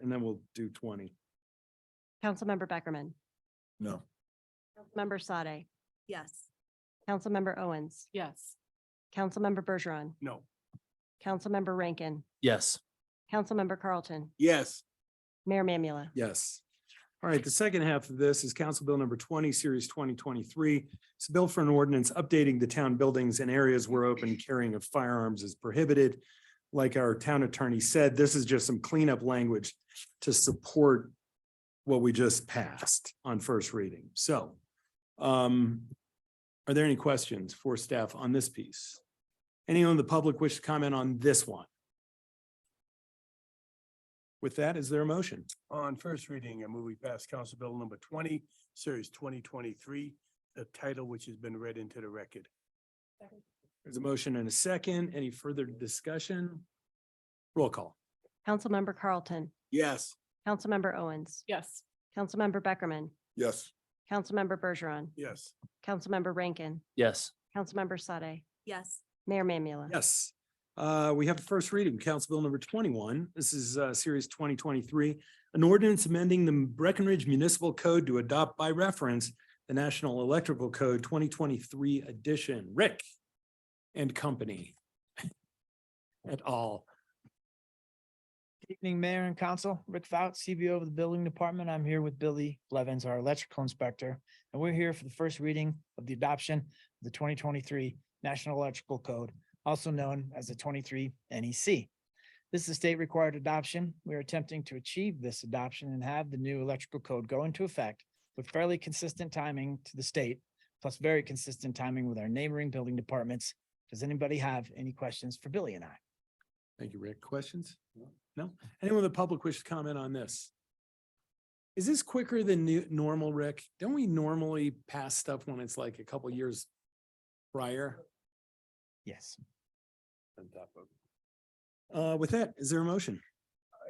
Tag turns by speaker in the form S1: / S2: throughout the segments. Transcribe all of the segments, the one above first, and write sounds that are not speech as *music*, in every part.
S1: and then we'll do twenty.
S2: Councilmember Beckerman,
S1: No.
S2: Member Sade,
S3: Yes.
S2: Councilmember Owens,
S4: Yes.
S2: Councilmember Bergeron,
S1: No.
S2: Councilmember Rankin,
S5: Yes.
S2: Councilmember Carlton,
S6: Yes.
S2: Mayor Mamula.
S1: Yes. All right, the second half of this is Council Bill Number twenty, Series twenty twenty-three. It's a bill for an ordinance updating the town buildings and areas where open carrying of firearms is prohibited. Like our town attorney said, this is just some cleanup language to support what we just passed on first reading. So um, are there any questions for staff on this piece? Anyone in the public wish to comment on this one? With that, is there a motion?
S6: On first reading, I move we pass Council Bill number twenty, series twenty twenty-three, the title which has been read into the record.
S1: There's a motion and a second. Any further discussion? Roll call.
S2: Councilmember Carlton,
S6: Yes.
S2: Councilmember Owens,
S4: Yes.
S2: Councilmember Beckerman,
S7: yes,
S2: Councilmember Bergeron,
S6: Yes.
S2: Councilmember Rankin,
S5: Yes.
S2: Councilmember Sade,
S3: Yes.
S2: Mayor Mamula.
S1: Yes. Uh, we have a first reading, Council Bill number twenty-one. This is uh series twenty twenty-three. An ordinance amending the Breckenridge Municipal Code to adopt by reference the National Electrical Code twenty twenty-three edition, Rick and Company. *laughs* At all.
S8: Evening, Mayor and Council. Rick Fout, CBO of the Building Department. I'm here with Billy Levens, our electrical inspector. And we're here for the first reading of the adoption of the twenty twenty-three National Electrical Code, also known as the twenty-three NEC. This is state required adoption. We are attempting to achieve this adoption and have the new electrical code go into effect with fairly consistent timing to the state, plus very consistent timing with our neighboring building departments. Does anybody have any questions for Billy and I?
S1: Thank you, Rick. Questions? No? Anyone in the public wish to comment on this? Is this quicker than new, normal, Rick? Don't we normally pass stuff when it's like a couple years prior?
S8: Yes.
S1: Uh, with that, is there a motion?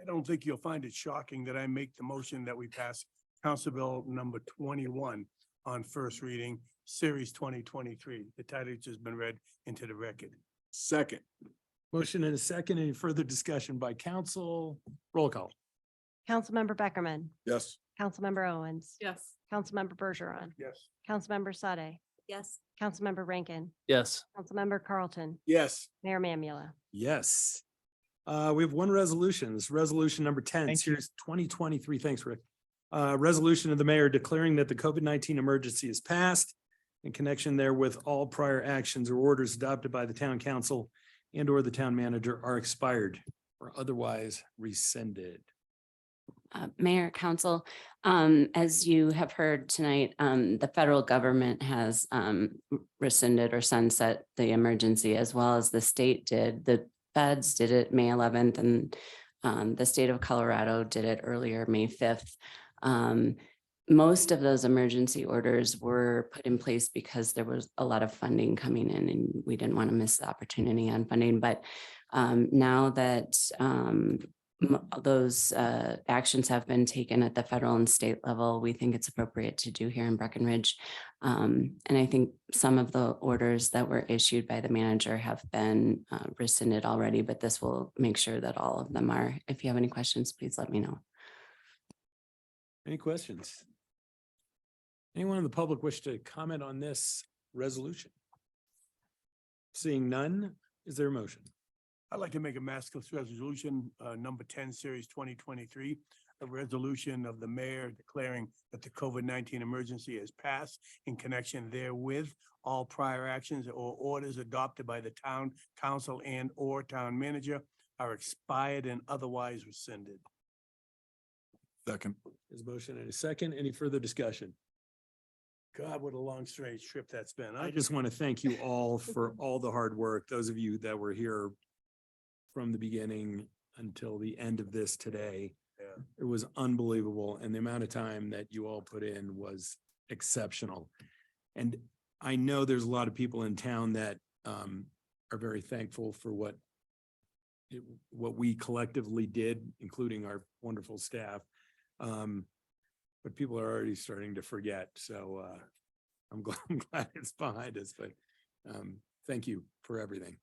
S6: I don't think you'll find it shocking that I make the motion that we pass Council Bill number twenty-one on first reading, series twenty twenty-three, the title which has been read into the record.
S7: second,
S1: Motion and a second. Any further discussion by council? Roll call.
S2: Councilmember Beckerman,
S7: yes,
S2: Councilmember Owens,
S4: Yes.
S2: Councilmember Bergeron,
S6: Yes.
S2: Councilmember Sade,
S3: Yes.
S2: Councilmember Rankin,
S5: Yes.
S2: Councilmember Carlton,
S6: Yes.
S2: Mayor Mamula.
S1: Yes. Uh, we have one resolution. This is resolution number ten,
S8: Thank you.
S1: series twenty twenty-three. Thanks, Rick. Uh, resolution of the mayor declaring that the COVID nineteen emergency is passed in connection therewith, all prior actions or orders adopted by the town council and or the town manager are expired or otherwise rescinded.
S9: Uh, Mayor, Council, um, as you have heard tonight, um, the federal government has, um, rescinded or sunset the emergency as well as the state did. The feds did it May eleventh and, um, the state of Colorado did it earlier, May fifth. Um, most of those emergency orders were put in place because there was a lot of funding coming in and we didn't want to miss the opportunity on funding. But, um, now that, um, m- those uh, actions have been taken at the federal and state level, we think it's appropriate to do here in Breckenridge. Um, And I think some of the orders that were issued by the manager have been uh, rescinded already, but this will make sure that all of them are. If you have any questions, please let me know.
S1: Any questions? Anyone in the public wish to comment on this resolution? Seeing none, is there a motion?
S6: I'd like to make a maskless resolution, uh, number ten, series twenty twenty-three. A resolution of the mayor declaring that the COVID nineteen emergency has passed in connection therewith. All prior actions or orders adopted by the town council and or town manager are expired and otherwise rescinded.
S7: second,
S1: There's a motion and a second. Any further discussion?
S6: God, what a long strange trip that's been.
S1: I just want to thank you all *laughs* for all the hard work, those of you that were here from the beginning until the end of this today.
S6: Yeah.
S1: It was unbelievable, and the amount of time that you all put in was exceptional. And I know there's a lot of people in town that um are very thankful for what it- what we collectively did, including our wonderful staff. Um, but people are already starting to forget, so uh I'm glad, *laughs* I'm glad it's behind us, but um, thank you for everything.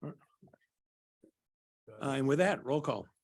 S1: Uh,
S6: Uh,
S1: Uh, and with that, roll call.